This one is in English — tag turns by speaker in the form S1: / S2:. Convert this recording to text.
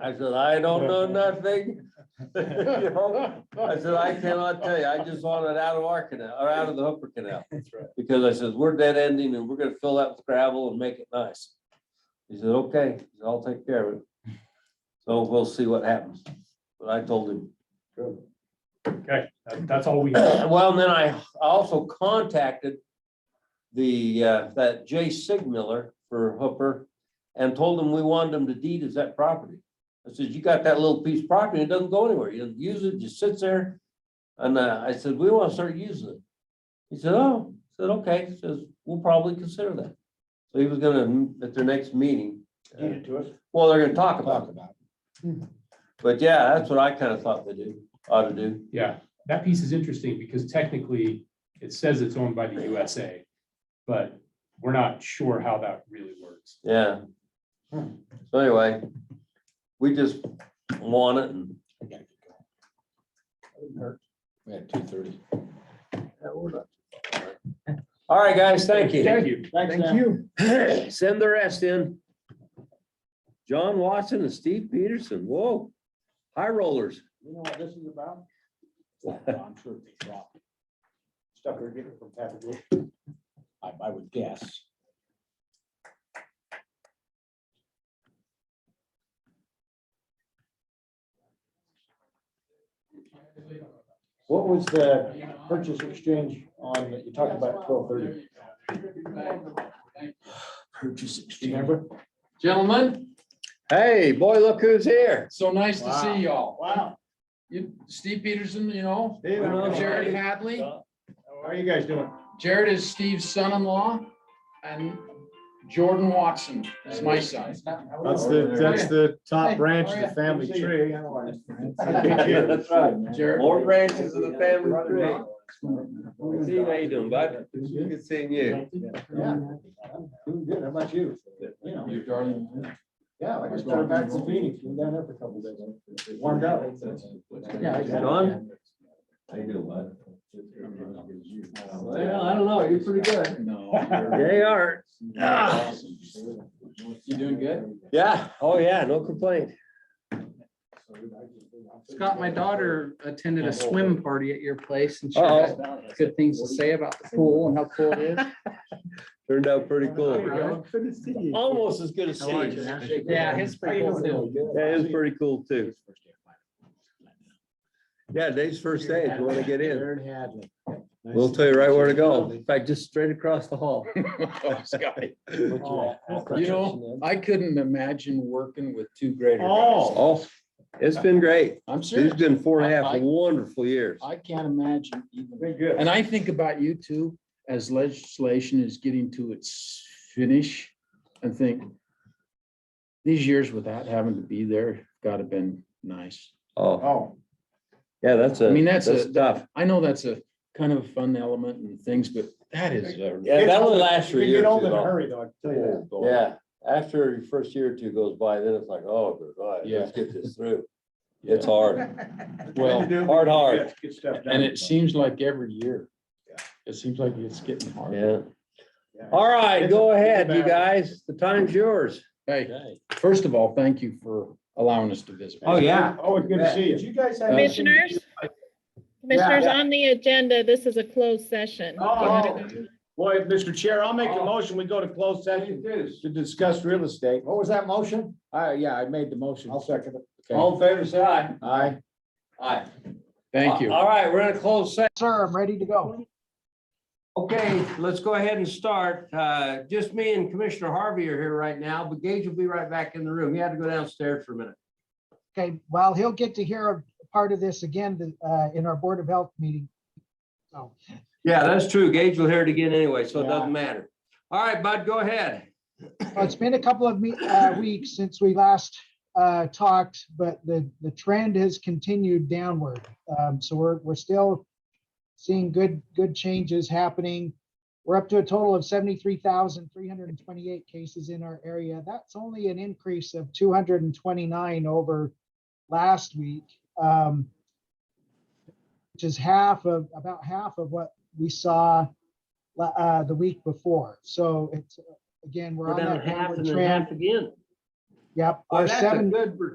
S1: I said, I don't know nothing. You know? I said, I cannot tell you. I just want it out of our canal, or out of the Hooper Canal.
S2: That's right.
S1: Because I says, we're dead ending and we're gonna fill that with gravel and make it nice. He said, okay, He said, I'll take care of it. So we'll see what happens. But I told him,
S2: Okay, that- that's all we have.
S1: well, and then I also contacted the, uh, that Jay Sigmiller for Hooper and told him we wanted him to deed as that property. I said, you got that little piece of property, it doesn't go anywhere. You don't use it, just sits there. And uh, I said, we want to start using it. He said, oh, I said, okay, He says, we'll probably consider that. So he was gonna, at their next meeting, uh,
S3: Deed it to us,
S1: well, they're gonna talk about
S3: talk
S1: it.
S3: about it.
S1: But yeah, that's what I kind of thought they do, ought to do.
S2: Yeah, that piece is interesting because technically it says it's owned by the USA, but we're not sure how that really works.
S1: Yeah.
S3: Hmm.
S1: So anyway, we just want it and
S3: I gotta get going. That wouldn't hurt. We had two thirty.
S1: all right, guys, thank you.
S2: Thank you.
S3: Thank you.
S1: Send the rest in. John Watson and Steve Peterson, whoa, high rollers.
S3: You know what this is about? I'm sure they drop. Stuff they're getting from Patagonia. I, I would guess. What was the purchase exchange on, that you talked about twelve thirty,
S4: Purchase exchange.
S3: remember?
S4: Gentlemen,
S1: Hey, boy, look who's here.
S4: so nice to
S3: Wow.
S4: see y'all.
S3: Wow.
S4: You, Steve Peterson, you know,
S3: Dave,
S1: Well,
S3: how
S4: Jared Hadley.
S3: are you guys doing?
S4: Jared is Steve's son-in-law and Jordan Watson is my son.
S5: That's the, that's the top branch of the family
S3: Good to see you.
S5: tree.
S1: That's right.
S4: Jared,
S1: More branches of the family tree. Steve, how you doing, bud? Good seeing you.
S3: Yeah. Doing good, how about you? You know.
S4: you're darling.
S3: Yeah, I just started back from Phoenix, been down there for a couple of days, warmed up. Yeah, exactly.
S1: John? How you doing, bud? I don't know, you're pretty good. They are.
S4: You doing good?
S1: Yeah, oh yeah, no complaint.
S6: Scott, my daughter attended a swim party at your place and she
S1: Oh. Uh-oh.
S6: had good things to say about the pool and how cool it is.
S1: Turned out pretty cool.
S6: Cool.
S5: Good to see you.
S1: Almost as good as Steve's.
S6: Yeah, it's pretty cool too.
S1: That is pretty cool too. Yeah, Dave's first day, if you want to get in,
S5: Jared Hadley.
S1: we'll tell you right where to go. In fact, just straight across the hall.
S4: Oh, Scott,
S5: Oh,
S4: You know, I couldn't imagine working with two greater guys.
S5: Oh.
S1: Oh, it's been great.
S4: I'm
S1: It's
S4: serious.
S1: been four and a half wonderful years.
S4: I can't imagine even.
S3: Very good.
S4: And I think about you too, as legislation is getting to its finish and think these years without having to be there, gotta been nice.
S1: Oh,
S3: Oh,
S1: yeah, that's a,
S4: I mean, that's
S1: that's
S4: a-
S1: tough.
S4: I know that's a kind of fun element and things, but that is a
S1: Yeah, that only lasts
S3: you
S1: for a
S3: can
S1: year
S3: get
S1: or
S3: old
S1: two
S3: in a
S1: though.
S3: hurry though, I can tell you that.
S1: Yeah, after your first year or two goes by, then it's like, oh, good, all right, let's get this through. It's hard,
S4: Well,
S1: hard, hard.
S3: Yeah, Good stuff. done.
S4: and it seems like every year.
S3: Yeah.
S4: It seems like it's getting harder.
S1: Yeah.
S3: Yeah.
S1: All right, go ahead, you
S3: battle.
S1: guys. The time's yours.
S4: Hey, first of all, thank you for allowing us to visit.
S1: Oh, yeah.
S3: Always good to see you. you guys have?
S7: Commissioners? Commissioners, on the agenda, this is a closed session.
S3: Oh.
S5: Boy, Mr. Chair, I'll make a motion. We go to closed session to discuss real estate.
S3: What was that motion?
S5: I, yeah, I made the motion.
S3: I'll second it.
S1: All in favor, say aye.
S5: Aye.
S1: Aye.
S4: Thank you.
S1: All right, we're in a closed session.
S3: Sir, I'm ready to go.
S1: Okay, let's go ahead and start. Uh, Just me and Commissioner Harvey are here right now, but Gage will be right back in the room. He had to go downstairs for a minute.
S8: Okay, well, he'll get to hear a part of this again the- uh, in our Board of Health meeting. So,
S1: Yeah, that's true. Gage will hear it again anyway, so it doesn't matter. All right, Bud, go ahead.
S8: well, it's been a couple of me- uh, weeks since we last uh, talked, but the, the trend has continued downward. Um, So we're, we're still seeing good, good changes happening. We're up to a total of 73,328 cases in our area. That's only an increase of 229 over last week. um, Which is half of, about half of what we saw la- uh, the week before. So it's, again, we're
S1: We're
S8: on
S1: down
S8: that
S1: half
S8: downward
S1: and then half
S8: trend.
S1: again.
S8: Yep.
S1: Boy,
S8: Our
S1: That's a
S8: seven-
S1: good